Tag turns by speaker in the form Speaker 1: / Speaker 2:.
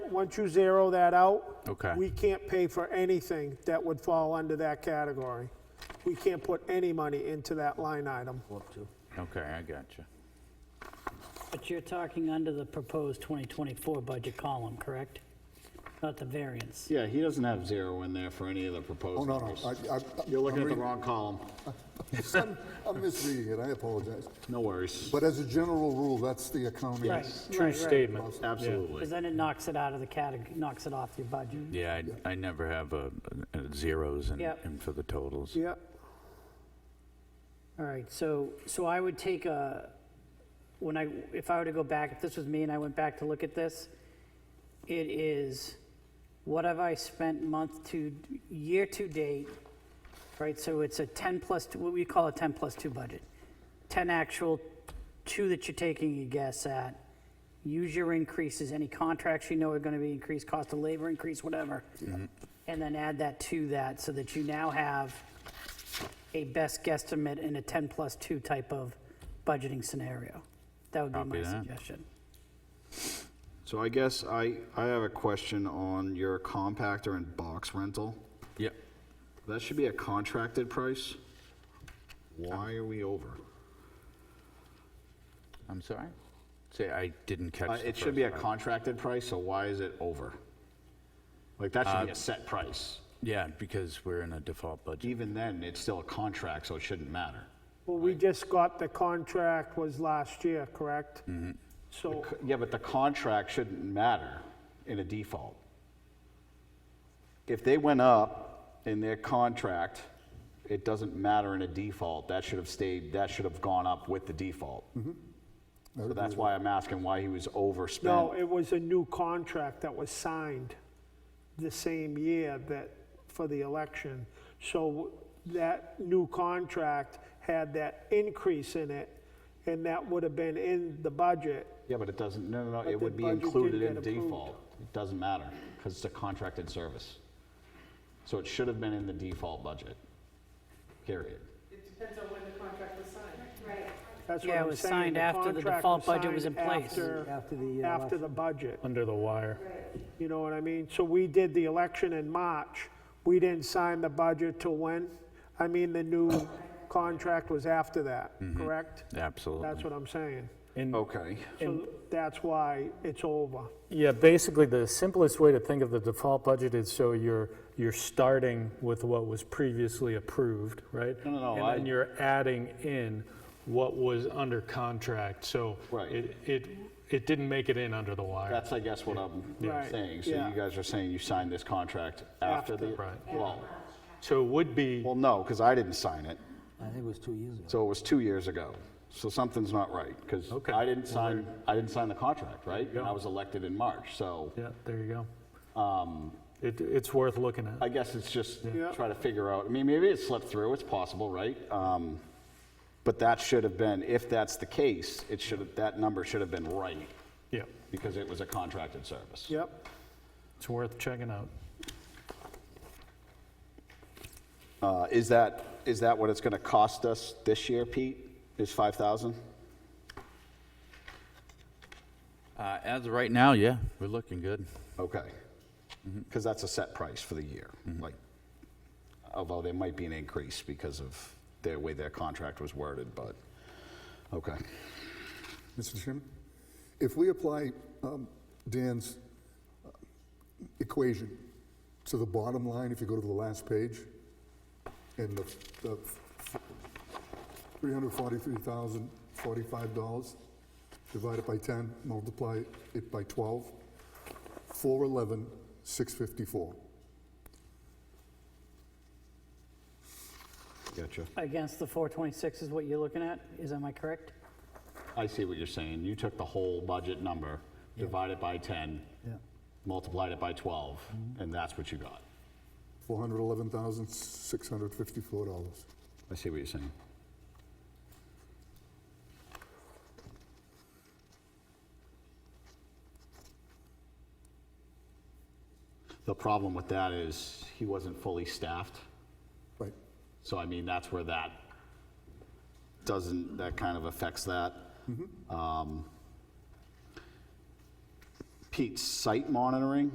Speaker 1: once you zero that out.
Speaker 2: Okay.
Speaker 1: We can't pay for anything that would fall under that category. We can't put any money into that line item.
Speaker 2: Okay, I got you.
Speaker 3: But you're talking under the proposed 2024 budget column, correct? Not the variance.
Speaker 4: Yeah, he doesn't have zero in there for any of the
Speaker 5: Oh,
Speaker 4: proposed
Speaker 5: no, no.
Speaker 4: numbers.
Speaker 5: I- I-
Speaker 4: You're looking
Speaker 5: I'm
Speaker 4: at the
Speaker 5: reading-
Speaker 4: wrong column.
Speaker 5: I'm misreading it, I apologize.
Speaker 4: No worries.
Speaker 5: But as a general rule, that's the economy.
Speaker 3: True
Speaker 2: statement.
Speaker 4: Absolutely.
Speaker 3: Because then it knocks it out of the category, knocks it off your budget.
Speaker 2: Yeah, I, I never have uh uh zeros and,
Speaker 3: Yep.
Speaker 2: and for the totals.
Speaker 1: Yep.
Speaker 3: All right, so, so I would take a, when I, if I were to go back, if this was me and I went back to look at this, it is, what have I spent month to, year to date, right? So it's a 10 plus, two- what we call a 10 plus 2 budget. 10 actual, 2 that you're taking a guess at. Use your increases, any contracts you know are going to be increased, cost of labor increase, whatever.
Speaker 2: Mm-hmm.
Speaker 3: And then add that to that so that you now have a best guesstimate in a 10 plus 2 type of budgeting scenario. That would be
Speaker 2: Copy
Speaker 3: my
Speaker 2: that.
Speaker 3: suggestion.
Speaker 4: So I guess I, I have a question on your compactor and box rental.
Speaker 2: Yep.
Speaker 4: That should be a contracted price. Why are we over?
Speaker 2: I'm sorry? Say, I didn't catch
Speaker 4: Uh,
Speaker 2: the
Speaker 4: It should be a
Speaker 2: first part.
Speaker 4: contracted price, so why is it over? Like, that
Speaker 2: Uh,
Speaker 4: should be a set price.
Speaker 2: Yeah, because we're in a default budget.
Speaker 4: Even then, it's still a contract, so it shouldn't matter.
Speaker 1: Well, we just got the contract was last year, correct? So,
Speaker 4: C- Yeah, but the contract shouldn't matter in a default. If they went up in their contract, it doesn't matter in a default. That should have stayed, that should have gone up with the default. So that's why I'm asking why he was
Speaker 1: no,
Speaker 4: overspent.
Speaker 1: it was a new contract that was signed the same year that, for the election. So that new contract had that increase in it, and that would have been in the budget.
Speaker 4: Yeah, but it doesn't, no, no, no,
Speaker 1: But
Speaker 4: it would
Speaker 1: the
Speaker 4: be
Speaker 1: budget
Speaker 4: included
Speaker 1: didn't
Speaker 4: in
Speaker 1: get approved.
Speaker 4: default. It doesn't matter, because it's a contracted service. So it should have been in the default budget, period.
Speaker 6: It depends on when the contract was signed.
Speaker 1: That's what
Speaker 3: Yeah, it
Speaker 1: I'm
Speaker 3: was
Speaker 1: saying.
Speaker 3: signed after the
Speaker 1: contract
Speaker 3: default budget was
Speaker 1: signed
Speaker 3: in place.
Speaker 1: after-
Speaker 7: After the, uh,
Speaker 1: After the budget,
Speaker 8: under the wire.
Speaker 1: you know what I mean? So we did the election in March. We didn't sign the budget till when? I mean, the new contract was after that,
Speaker 7: Mm-hmm.
Speaker 1: correct? That's
Speaker 2: Absolutely.
Speaker 1: what I'm saying.
Speaker 8: And,
Speaker 4: Okay.
Speaker 1: So that's why it's over.
Speaker 8: yeah, basically, the simplest way to think of the default budget is so you're, you're starting with what was previously approved, right?
Speaker 4: No, no, no,
Speaker 8: And
Speaker 4: I-
Speaker 8: then you're adding in what was under contract, so.
Speaker 4: Right.
Speaker 8: It, it, it didn't make it in under the wire.
Speaker 4: That's, I guess, what I'm
Speaker 1: Right,
Speaker 4: saying. So
Speaker 1: yeah.
Speaker 4: you guys are saying you signed this contract after the,
Speaker 8: Right.
Speaker 4: well,
Speaker 8: So it would be,
Speaker 4: well, no, because I didn't sign it.
Speaker 7: I think it was two years ago.
Speaker 4: So it was two years ago. So something's not right, because
Speaker 8: Okay.
Speaker 4: I didn't sign, I didn't sign the contract, right? And I was elected in March, so
Speaker 8: yeah, there you go. It, it's worth looking at.
Speaker 4: um, I guess it's just
Speaker 1: Yeah.
Speaker 4: try to figure out, I mean, maybe it slipped through, it's possible, right? Um, But that should have been, if that's the case, it should, have that number should have been right,
Speaker 8: Yeah,
Speaker 4: because it was a contracted service.
Speaker 1: Yep.
Speaker 8: it's worth checking out.
Speaker 4: Uh, Is that, is that what it's going to cost us this year, Pete, is 5,000?
Speaker 2: Uh, as of right now, yeah, we're looking good.
Speaker 4: Okay. Because that's a set price for the year, like, although there might be an increase because of the way their contract was worded, but, okay.
Speaker 5: Mr. Chairman, if we apply um, Dan's uh, equation to the bottom line, if you go to the last page, and the the $343,045 divided by 10, multiply it by 12, 411,654.
Speaker 4: Gotcha.
Speaker 3: Against the 426 is what you're looking at? Is, am I correct?
Speaker 4: I see what you're saying. You took the whole budget number, divided by 10,
Speaker 7: Yeah.
Speaker 4: multiplied it by 12, and that's what you got.
Speaker 5: $411,654.
Speaker 4: I see what you're saying. The problem with that is he wasn't fully staffed.
Speaker 5: Right.
Speaker 4: So I mean, that's where that doesn't, that kind of affects that. Um, Pete's site monitoring,